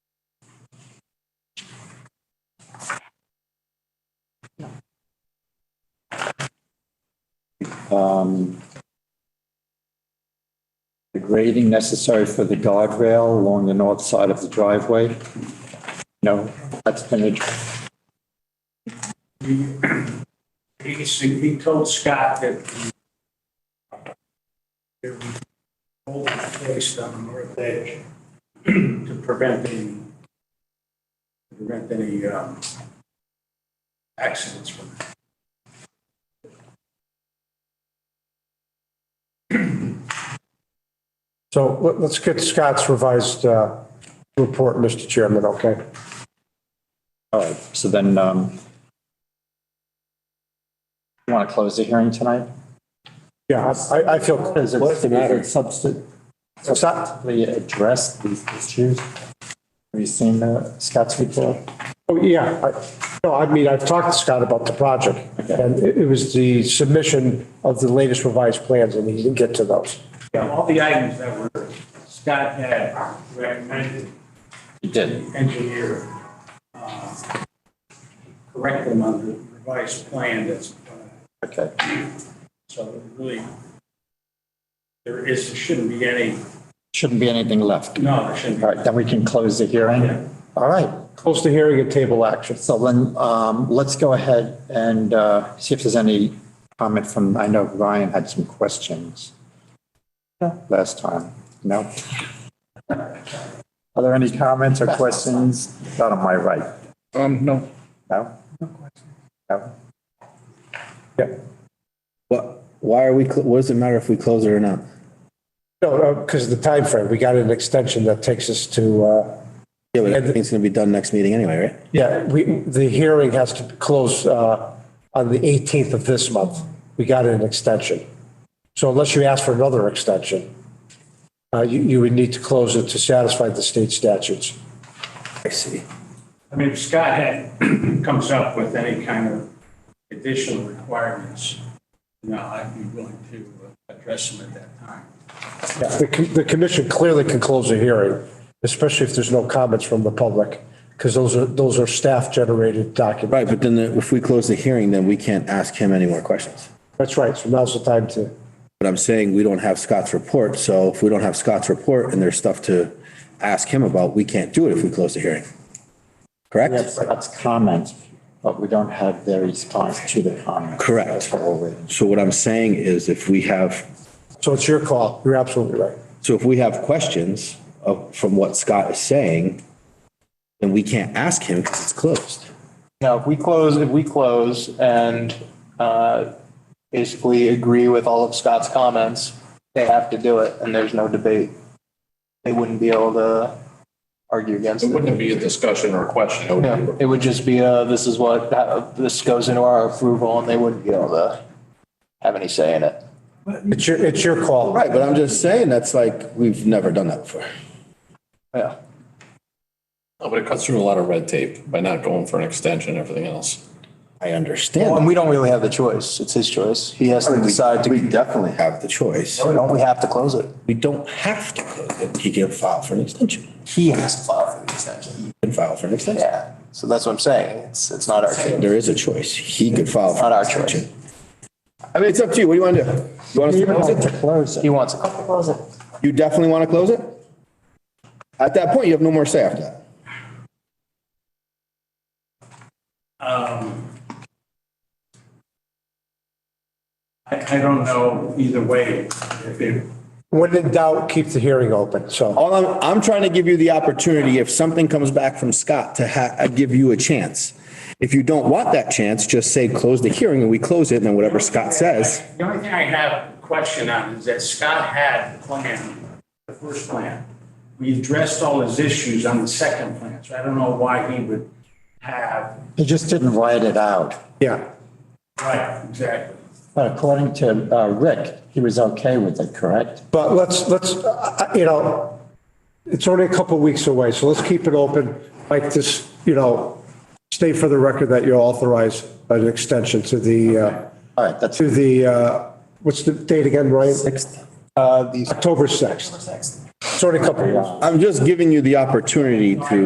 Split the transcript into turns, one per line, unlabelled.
um, the grading necessary for the guardrail along the north side of the driveway. No, that's been addressed.
He, he s- he told Scott that that we hold it placed on the north edge to prevent any, to prevent any, um, accidents from.
So let- let's get Scott's revised uh, report, Mr. Chairman, okay?
All right, so then, um, you want to close the hearing tonight?
Yeah, I, I feel.
What's the matter? Substan-
It's not-
substantively address these issues? Have you seen the Scott's report?
Oh, yeah. I- No, I mean, I've talked to Scott about the project, and it it was the submission of the latest revised plans, and he didn't get to those.
Yeah, all the items that were, Scott had recommended
He did.
engineer uh, correct them on the revised plan that's, uh,
Okay,
so really, there is, there shouldn't be any,
shouldn't be anything left.
no, there shouldn't be.
All right, then we can close the hearing.
Yeah.
All right,
Close the hearing and table action.
so then, um, let's go ahead and, uh, see if there's any comment from, I know Ryan had some questions last time. No? Are there any comments or questions? Not on my right.
Um, no.
No? No?
Yeah.
What, why are we, cl- what does it matter if we close it or not?
No, because of the timeframe, we got an extension that takes us to, uh,
Yeah, but
Yeah, the-
everything's gonna be done next meeting anyway, right?
yeah, we, the hearing has to close uh, on the 18th of this month. We got an extension. So unless you ask for another extension, uh, you, you would need to close it to satisfy the state statutes.
I see.
I mean, if Scott had, comes up with any kind of additional requirements, you know, I'd be willing to address them at that time.
Yeah, The, com- the commission clearly can close the hearing, especially if there's no comments from the public, because those are, those are staff-generated documents.
Right, but then the- if we close the hearing, then we can't ask him any more questions.
That's right, so now's the time to,
But I'm saying we don't have Scott's report, so if we don't have Scott's report and there's stuff to ask him about, we can't do it if we close the hearing.
We have
Correct?
Scott's comments, but we don't have their response to the comments.
Correct.
That's what we're waiting.
So what I'm saying is if we have
so it's your call, you're absolutely right.
So if we have questions of, from what Scott is saying, then we can't ask him because it's closed.
Now, if we close, if we close and uh, basically agree with all of Scott's comments, they have to do it and there's no debate. They wouldn't be able to argue against
It
it.
wouldn't be a discussion or a question. It would be-
No, It would just be, uh, this is what, uh, this goes into our approval and they wouldn't be able to have any say in it.
It's your, it's your call.
Right, but I'm just saying, that's like, we've never done that before.
Yeah.
No, But it cuts through a lot of red tape by not going for an extension and everything else.
I
Well,
understand.
And we don't really have the choice. It's his choice. He has to decide to,
definitely have the choice.
don't we have to close it?
We don't have to close it. He can file for an extension.
He has to file for the extension.
He can file for an extension.
Yeah, so that's what I'm saying. It's, it's not our choice.
There is a choice. He could file. for
Not our
an
choice.
extension. I mean, it's up to you. What do you want to do? You want us to close it?
Close it.
He wants it.
You definitely want to close it? At that point, you have no more say after that.
Um, I, I don't know either way if it,
When in doubt, keep the hearing open, so.
All I'm, I'm trying to give you the opportunity, if something comes back from Scott, to ha, uh, give you a chance. If you don't want that chance, just say, close the hearing and we close it and then whatever Scott says.
The only thing I have a question on is that Scott had the plan, the first plan. We addressed all his issues on the second plan, so I don't know why he would have,
He just didn't write it out.
Yeah.
right, exactly.
But according to uh, Rick, he was okay with it, correct?
But let's, let's, uh, uh, you know, it's only a couple of weeks away, so let's keep it open. Like this, you know, state for the record that you authorize an extension to the, uh,
All right, that's
to the, uh, what's the date again, Ryan?
sixth.
Uh, these
October 6th. It's only a couple of weeks.
I'm just giving you the opportunity to